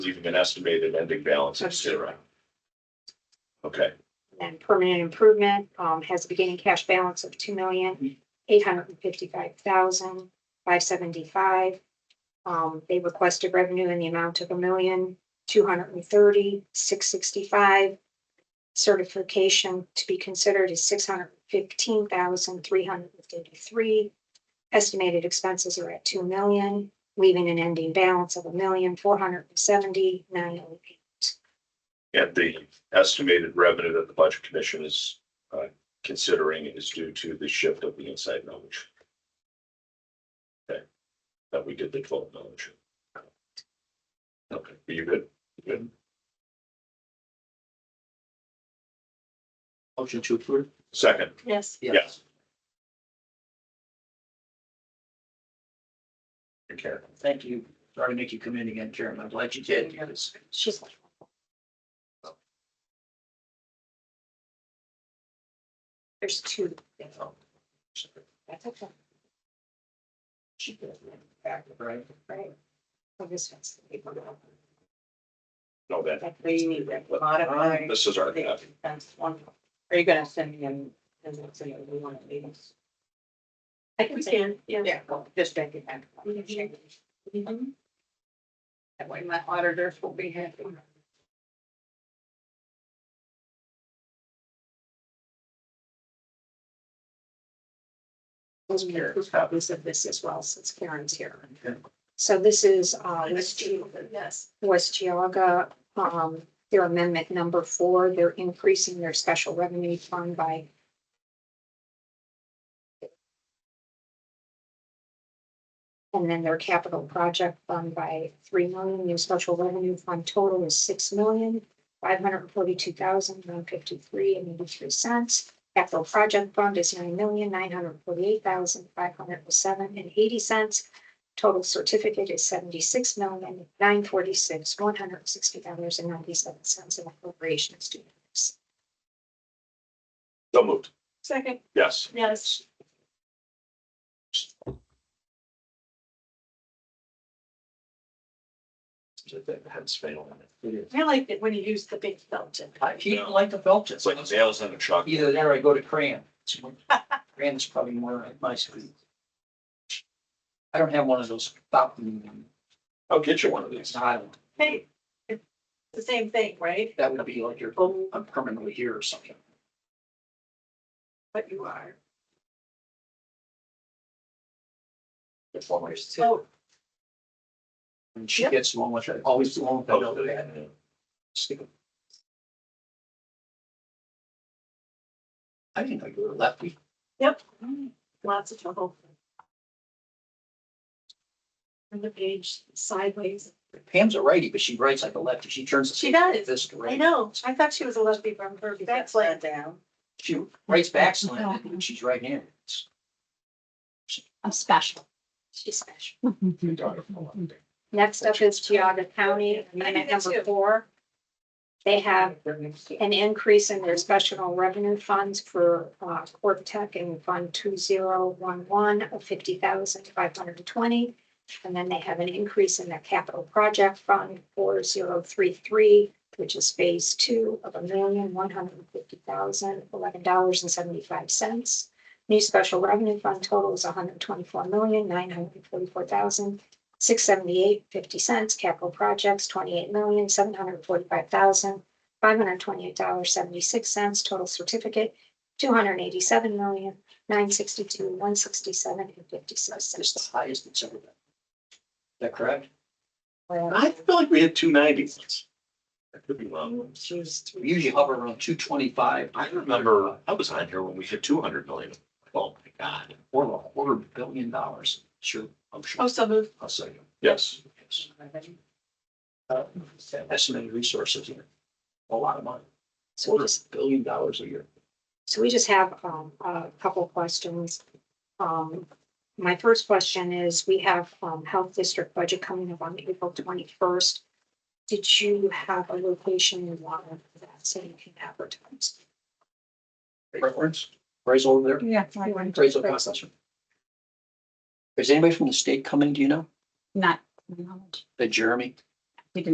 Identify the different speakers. Speaker 1: leaving an estimated ending balance of zero. Okay,
Speaker 2: And permanent improvement, um, has a beginning cash balance of two million, eight hundred and fifty-five thousand, five seventy-five. Um, they requested revenue in the amount of a million, two hundred and thirty, six sixty-five. Certification to be considered is six hundred and fifteen thousand, three hundred and fifty-three. Estimated expenses are at two million, leaving an ending balance of a million, four hundred and seventy, nine oh eight.
Speaker 1: and the estimated revenue that the budget commission is uh, considering is due to the shift of the inside knowledge. Okay, that we did the twelve knowledge. Okay, are you good? Good.
Speaker 3: Motion to approve?
Speaker 1: Second,
Speaker 2: Yes.
Speaker 1: yes. Take care.
Speaker 3: Thank you. Sorry to make you come in again, Chairman. I'm glad you did. because-
Speaker 2: She's. There's two. That's okay,
Speaker 3: Right.
Speaker 2: right? So this one's the paper.
Speaker 1: No, that,
Speaker 4: That's where you need to modify
Speaker 1: this is our, uh,
Speaker 4: the expense one. Are you gonna send me in, is it so you want to leave?
Speaker 2: I can say,
Speaker 4: Yeah. Mm-hmm. well, Just make it back.
Speaker 2: Mhm.
Speaker 4: That way my auditors will be happy.
Speaker 2: those are the proof copies of this as well, since Karen's here.
Speaker 3: Okay.
Speaker 2: So this is, uh, West Ge-
Speaker 4: Yes.
Speaker 2: West Georgia, um, their amendment number four, they're increasing their special revenue fund by And then their capital project fund by three million, their special revenue fund total is six million, five hundred and forty-two thousand, one fifty-three and eighty-three cents. Capital project fund is nine million, nine hundred and forty-eight thousand, five hundred and seven and eighty cents. Total certificate is seventy-six million, nine forty-six, one hundred and sixty dollars and ninety-seven cents in appropriations due.
Speaker 1: so moved,
Speaker 4: Second,
Speaker 1: yes.
Speaker 4: yes.
Speaker 3: That's fatal. It is.
Speaker 4: I liked it when you used the big felt tip.
Speaker 3: I keep like the felt.
Speaker 1: It's like nails in a chalk.
Speaker 3: Either there or I go to crayon. Crayon is probably more at my speed. I don't have one of those fountain,
Speaker 1: I'll get you one of
Speaker 3: it's
Speaker 1: these.
Speaker 3: not,
Speaker 4: Hey, it's the same thing, right?
Speaker 3: that would be like you're, oh, I'm permanently here or something.
Speaker 4: But you are.
Speaker 3: It's always-
Speaker 4: So
Speaker 3: And she gets one with it, always the one with the
Speaker 1: Oh,
Speaker 3: note pad. Stick it. I didn't know you were a lefty.
Speaker 4: lots of trouble. Turn the page sideways.
Speaker 3: Pam's a righty, but she writes like a lefty. She turns. the
Speaker 4: She
Speaker 3: page
Speaker 4: does.
Speaker 3: This to
Speaker 4: I
Speaker 3: right.
Speaker 4: know. I thought she was a lesbian from her. That's like down.
Speaker 3: She writes back slant when she's right handed.
Speaker 5: I'm special.
Speaker 2: She's special. Next up is Geogga County, amendment number four. They have an increase in their special revenue funds for uh, Corp Tech in Fund two zero one one of fifty thousand five hundred and twenty. And then they have an increase in their capital project fund four zero three three, which is phase two of a million one hundred and fifty thousand eleven dollars and seventy-five cents. New special revenue fund total is hundred and twenty-four million nine hundred and forty-four thousand six seventy-eight fifty cents. Capital projects twenty-eight million seven hundred and forty-five thousand five hundred twenty-eight dollars, seventy-six cents, total certificate, two hundred eighty-seven million, nine sixty-two, one sixty-seven, and fifty-six
Speaker 3: It's the
Speaker 2: cents.
Speaker 3: highest it's ever been. Is that correct?
Speaker 1: I feel like we had two nineties. I could be wrong.
Speaker 4: She was.
Speaker 3: We usually hover around two twenty-five.
Speaker 1: I remember, I was on here when we hit two hundred million.
Speaker 3: Oh, my God, we're a quarter billion dollars. Sure, I'm sure.
Speaker 4: Oh, so moved.
Speaker 3: I'll say.
Speaker 1: Yes,
Speaker 3: Yes. Uh, Estimated resources here. A lot of money.
Speaker 2: So we
Speaker 3: Quarter
Speaker 2: just,
Speaker 3: billion dollars a year.
Speaker 2: so we just have, um, a couple questions. Um, my first question is, we have, um, Health District budget coming up on April twenty-first. Did you have a location in mind for that, so you can advertise?
Speaker 3: Reference, Ray's over there.
Speaker 5: Yeah.
Speaker 3: Ray's over there. Is anybody from the state coming, do you know?
Speaker 5: Not. knowledge.
Speaker 3: The Jeremy?